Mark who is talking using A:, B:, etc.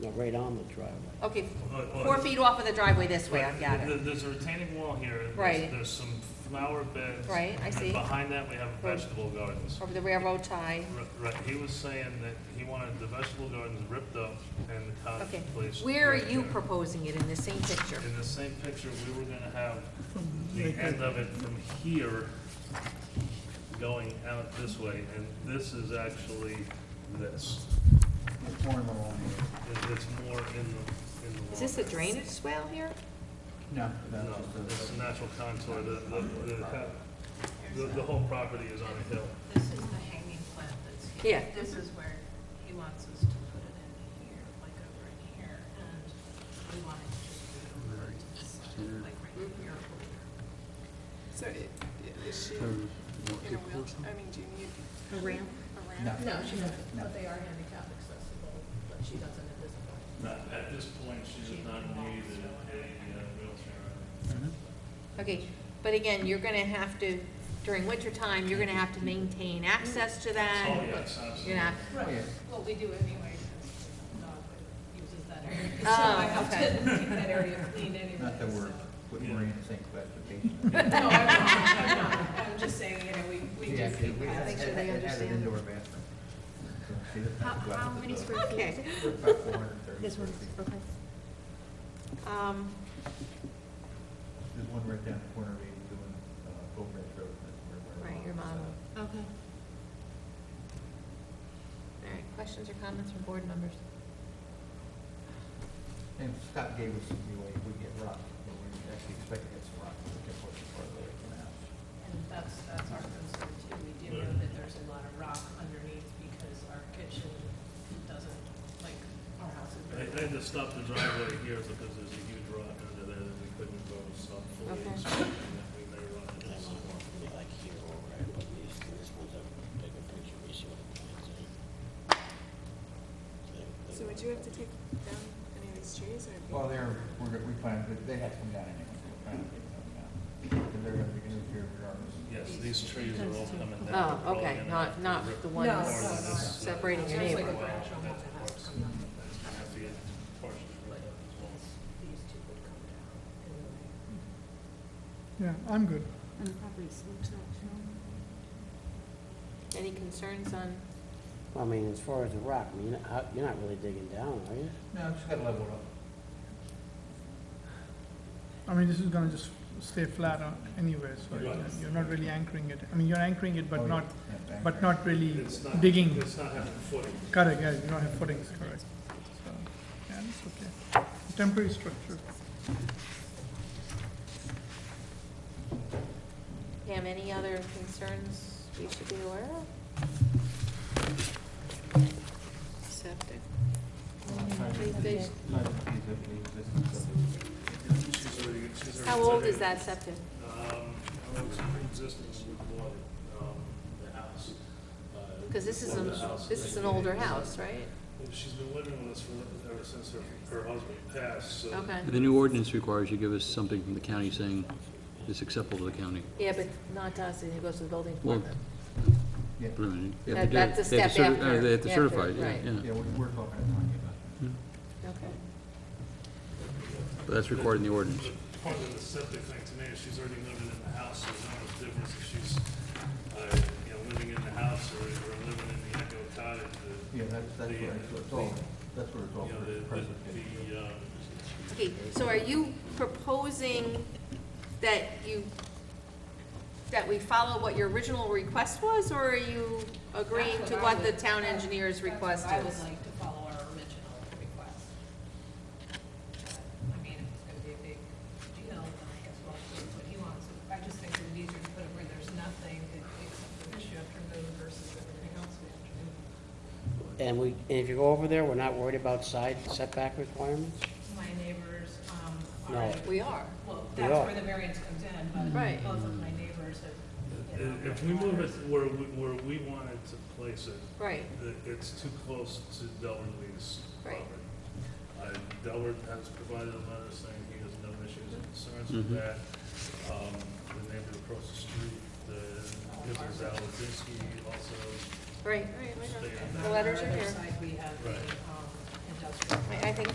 A: No, right on the driveway.
B: Okay,
C: Look, look.
B: four feet off of the driveway this way, I've got
C: There-
B: it.
C: There's a retaining wall here. and there's-
B: Right.
C: There's some flower beds.
B: Right, I
C: and
B: see.
C: behind that, we have vegetable gardens.
B: Over the railroad tie.
C: R- Right, he was saying that he wanted the vegetable gardens ripped up and the cottage
B: Okay.
C: place.
B: Where are
C: right
B: you
C: there.
B: proposing it in the same picture?
C: In the same picture, we were gonna have the end of it from here going out this way, and this is actually this. It- It's more in the, in the.
B: Is this a
C: lawn.
B: drainage swale here?
D: No, that's
C: No, it's
D: just
C: uh, a natural contour, the, the, the, the, the whole property is on a hill.
E: This is the hanging plant that's here.
B: Yeah.
E: This is where he wants us to put it in here, like over in here, and we want it to just be over to the side, like right here.
F: So i- i- is she
D: a,
F: in a wheel, I mean, do you need
B: A ramp?
F: a
D: No.
F: ramp?
E: No, she doesn't,
D: No.
E: but they are handicap accessible, but she doesn't at this point.
C: At this point, she does not need a, a
B: Uh,
C: wheelchair.
B: Okay, but again, you're gonna have to, during winter time, you're gonna have to maintain access to that.
C: Oh, yes,
B: You're
C: absolutely.
B: not,
D: Yeah.
E: Right, well, we do anyway, because the dog uses that area. So
B: Oh,
E: I have to keep that area clean anyway.
D: not that we're
E: so.
D: putting
C: Yeah.
D: Maria in the same classification.
E: No, I'm not, I'm not, I'm just saying, you know, we, we do keep
D: We
E: having.
D: had-
B: Make sure they
D: had- had an
B: understand.
D: indoor bathroom. So she doesn't have to go out
G: How
D: to
G: many
D: the-
G: square
B: okay.
D: About four hundred and thirty
G: This
D: square
G: one,
D: feet.
G: okay.
B: Um,
D: There's one right down the corner, maybe doing, uh, Oak Ridge Road. that's where we're
B: Right, your
D: at, so.
B: mom.
G: Okay.
B: all right, questions or comments from board members?
D: And Scott gave us some leeway, if we get rock, but we actually expect to get some rock, we can push it farther away from the house.
E: And that's, that's our concern too. We do know that there's a lot of rock underneath because our kitchen doesn't, like, our house is
C: They,
E: very.
C: they had to stop the driveway here because there's a huge rock under there that we couldn't go sub fully.
B: Okay.
C: inspecting that we may run into some more.
H: like here or right, but these, this one's a bigger picture, we see what the plans are. They- they-
F: So would you have to take down any of these trees or? be-
D: Well, they're, we're, go- we plan, but they have to come down anyway, we're trying to get them down. Because they're gonna be interfere regardless.
C: Yes, these trees are all coming
B: Oh,
C: down. They're probably
B: okay,
C: gonna have
B: not,
C: to
B: not
C: rip
B: the
E: No, no,
B: ones
C: part of this,
E: no.
C: uh,
B: separating your
E: Sounds like
B: neighbor.
E: a branch will have to have
C: That's
E: come down.
C: gonna have to get partially ripped up as well.
E: These two would come down. and then-
I: Yeah, I'm good.
G: And the property slopes not shown?
B: Any concerns on,
A: I mean, as far as the rock, I mean, you're not- how- you're not really digging down, are you?
D: No, it's gotta level it up.
I: I mean, this is gonna just stay flat uh, anyway, so
C: Right.
I: you're not really anchoring it. I mean, you're anchoring it,
D: Oh,
I: but
D: yeah.
I: not,
D: Yeah, thank
I: but
D: you.
I: not really
C: It's not-
I: digging.
C: It's not having footing.
I: Correct, yeah, you don't have footings, correct. So, yeah, it's okay. Temporary structure.
B: Pam, any other concerns we should be aware of? Septic.
D: It's not a piece of the existing subdivision.
C: She's already, she's already.
B: How old
C: said
B: is
C: it.
B: that septic?
C: Um, it was pre-existing when we bought it, um, the house. uh,
B: Because this is,
C: before the
B: an-
C: house,
B: this
C: they-
B: is an older house, right?
C: She's been living with us for, ever since her, her husband passed, so.
B: Okay.
J: The new ordinance requires you give us something from the county saying it's acceptable to the county.
B: Yeah, but not to us, it goes to the building
J: Well,
B: department.
D: Yeah,
J: Wait a minute, you have
B: That-
J: to do it.
B: that's a
J: They have to
B: step
J: certi- uh, They have
B: after,
J: to certify it,
B: after, right.
J: yeah,
D: yeah,
J: yeah.
D: we- we're talking to Tanya about that.
B: Okay.
J: But that's recorded in the ordinance.
C: But Part of the septic thing to me is she's already living in the house, so there's not much difference if she's, uh, you know, living in the house or, or living in the Echo Cottage. the-
D: Yeah, that's, that's
C: the-
D: where it's it's all, that's where it's all
C: You know, the,
D: present.
C: the, the, um,
B: Okay, so are you proposing that you, that we follow what your original request was, or are you agreeing
E: That's
B: to
E: I
B: what the
E: would-
B: town
E: that's-
B: engineer's
E: that's
B: request
E: what I
B: is?
E: would like to follow our original request. I mean, if it's gonna be a big deal, then I guess we'll do what he wants. I just think it would be easier to put it where there's nothing that except for this you have to remove versus everything else we have to do.
A: And we, and if you go over there, we're not worried about side setback requirements?
E: My neighbors, um,
A: No.
E: are,
B: We are.
E: well,
A: They
E: that's
A: are.
E: where the variance comes in, but
B: Right.
E: both of my neighbors have. you know,
C: if- If we move it where, we- where we wanted to place it,
B: Right,
C: that it's too close to Delaware-Lee's
B: Right.
C: property. Uh, Delaware has provided a letter saying he has no issues and concerns
J: Mhm.
C: with that. Um, The neighbor across the street, the Mrs. Aladinsky also
B: right, right, right.
C: stated
E: And
C: that.
B: The letters are
E: On the
B: here.
E: other side, we have the,
C: Right.
E: um,
K: industrial.
E: I I think